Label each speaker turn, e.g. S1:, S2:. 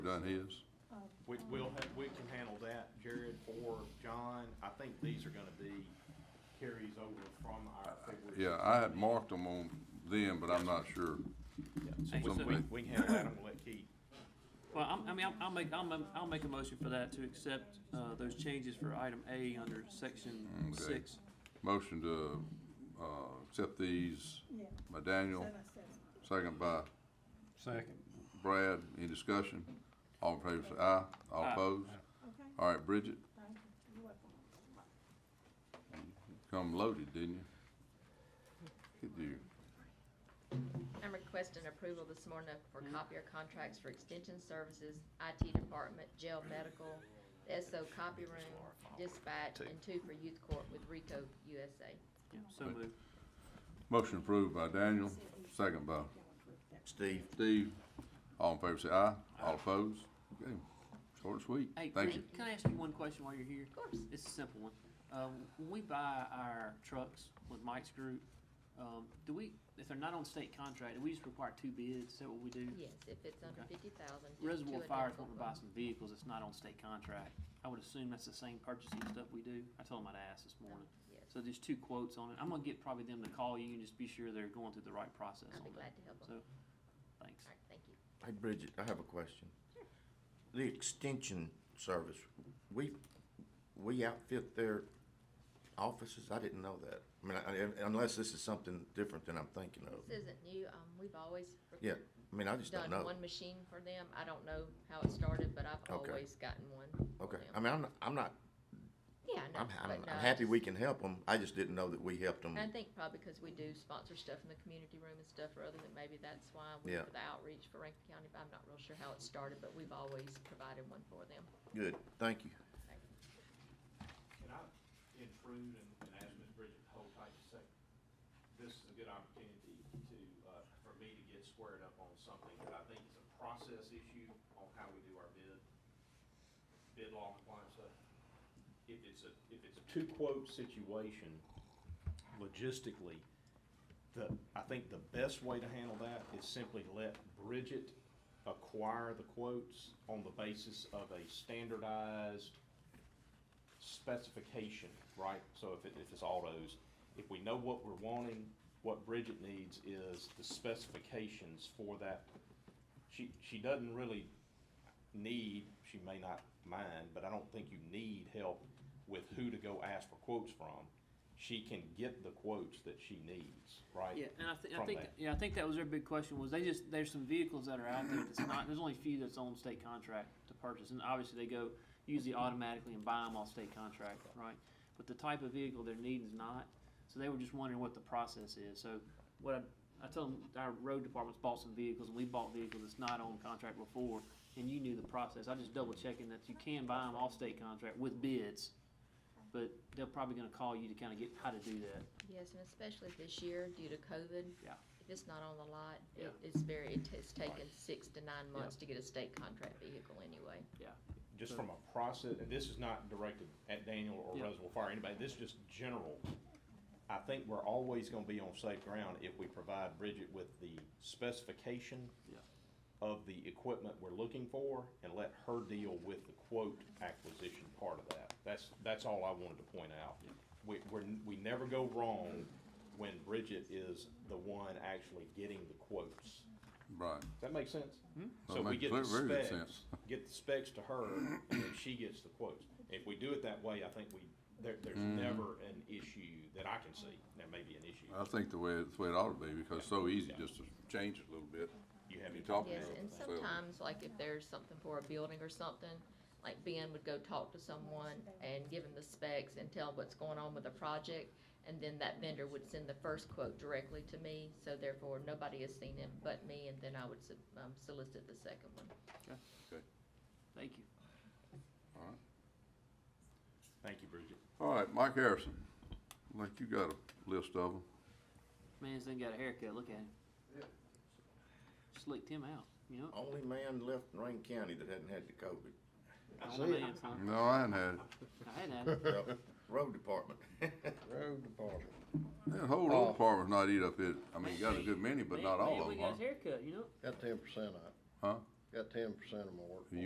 S1: done his?
S2: We, we'll have, we can handle that, Jared or John. I think these are gonna be carries over from our February.
S1: Yeah, I had marked them on them, but I'm not sure.
S2: So we- we, we can handle that, and we'll let Keith.
S3: Well, I'm- I mean, I'll- I'll make, I'll ma- I'll make a motion for that to accept uh, those changes for item A under section
S1: Okay.
S3: six.
S1: Motion to, uh, accept these
S4: Yeah.
S1: by Daniel,
S4: Seven, seven.
S1: second by
S5: Second.
S1: Brad. Any discussion? All in favor say aye. All
S3: Aye.
S1: opposed?
S4: Okay,
S1: All right, Bridget,
S4: thank you. You're welcome.
S1: come loaded, didn't you? Good deal.
S6: I'm requesting approval this morning for copier contracts for extension services, IT department, jail medical, the SO copy room, dispatch, and two for youth court with Rico USA.
S3: Yeah, So moved.
S1: Motion approved by Daniel, second by
S7: Steve,
S1: Steve. All in favor say aye. All opposed? Okay, short and sweet.
S3: Hey,
S1: Thank
S3: can
S1: you.
S3: I- can I ask you one question while you're here? Of
S6: course.
S3: It's a simple one. Uh, When we buy our trucks with Mike's group, um, do we, if they're not on state contract, do we just require two bids? Is that what we do?
S6: Yes, if it's under
S3: Okay.
S6: fifty thousand.
S3: Reservoir Fire's wanting to buy some vehicles that's not on state contract. I would assume that's the same purchasing stuff we do. I told him I'd ask this morning.
S6: Oh, Yes.
S3: So there's two quotes on it. I'm gonna get probably them to call you and just be sure they're going through the right process on
S6: I'd
S3: that.
S6: be glad to help 'em.
S3: So, thanks.
S6: All right, thank you.
S7: hey Bridget, I have a question. The extension service, we, we outfit their offices? I didn't know that. I mean, I- I- unless this is something different than I'm thinking of.
S6: This isn't new, um, we've always.
S7: Oh. Yeah, I mean, I just don't
S6: Done
S7: know.
S6: one machine for them. I don't know how it started, but I've
S7: Okay.
S6: always gotten one. for
S7: Okay,
S6: them.
S7: I mean, I'm, not- I'm not,
S6: Yeah, I know.
S7: I'm,
S6: but
S7: I'm
S6: no,
S7: I'm
S6: I
S7: happy we
S6: just-
S7: can help them. I just didn't know that we helped them.
S6: I think probably because we do sponsor stuff in the community room and stuff, rather than maybe that's why we
S7: Yeah.
S6: for the outreach for Rankin County, but I'm not real sure how it started, but we've always provided one for them.
S7: Good, thank you.
S2: Can I intrude and, and ask Ms. Bridget to hold tight a second? This is a good opportunity to, uh, for me to get squared up on something that I think is a process issue on how we do our bid, bid law compliance stuff. If it's a, if it's a two-quote situation, logistically, the, I think the best way to handle that is simply let Bridget acquire the quotes on the basis of a standardized specification, right? So if it, if it's autos, if we know what we're wanting, what Bridget needs is the specifications for that. She, she doesn't really need, she may not mind, but I don't think you need help with who to go ask for quotes from. She can get the quotes that she needs, right?
S3: Yeah, and I think, I
S2: From
S3: think,
S2: that.
S3: yeah, I think that was their big question was they just, there's some vehicles that are out there that's not, there's only a few that's on state contract to purchase. And obviously they go usually automatically and buy them off state contract, right? But the type of vehicle they're needing is not. So they were just wondering what the process is. So what I, I told them, our road department's bought some vehicles and we bought vehicles that's not on contract before. And you knew the process. I just double checking that you can buy them off state contract with bids. But they're probably gonna call you to kind of get how to do that.
S6: Yes, and especially this year due to COVID.
S3: Yeah.
S6: If it's not on the lot,
S3: Yeah.
S6: it- it's very, it has taken six to nine months to get a state contract vehicle anyway.
S3: Yeah.
S2: just from a process, and this is not directed at Daniel or
S3: Yeah.
S2: Reservoir Fire, or anybody, this is just general. I think we're always gonna be on safe ground if we provide Bridget with the specification
S3: Yeah.
S2: of the equipment we're looking for and let her deal with the quote acquisition part of that. That's, that's all I wanted to point out.
S3: Yeah.
S2: We, we're, we never go wrong when Bridget is the one actually getting the quotes.
S1: Right.
S2: Does that make sense? So
S1: That
S2: we
S1: makes
S2: get the
S1: very good
S2: specs,
S1: sense.
S2: get the specs to her, and then she gets the quotes. If we do it that way, I think we, there, there's
S1: Mm-hmm.
S2: never an issue that I can see. There may be an issue.
S1: I think the way, that's the way it ought to be, because it's so easy just to change it a little bit.
S2: You have
S1: You
S2: any
S1: talk
S2: talk?
S1: to
S6: Yes,
S1: them.
S6: and
S1: so-
S6: sometimes, like if there's something for a building or something, like Ben would go talk to someone and give him the specs and tell what's going on with the project. And then that vendor would send the first quote directly to me, so therefore nobody has seen it but me, and then I would sub- um, solicit the second one.
S1: Okay,
S3: Thank you.
S1: all right.
S2: Thank you, Bridget.
S1: All right, Mike Harrison, like you got a list of them.
S3: Man's done got a haircut. Look at him. Slicked him out. You know,
S7: Only man left in Rankin County that hadn't had the COVID,
S3: all the man's, huh?
S1: No, I ain't had it.
S3: I had that.
S7: Yep. road department.
S5: Road department.
S1: That whole road department's not eat up it, I mean, you got a good many, but
S3: Man-
S1: not all
S3: man,
S1: of
S3: Oh. we
S1: them,
S3: got his
S1: huh?
S3: haircut. You know,
S5: Got ten percent out.
S1: Huh?
S5: Got ten percent of my workforce.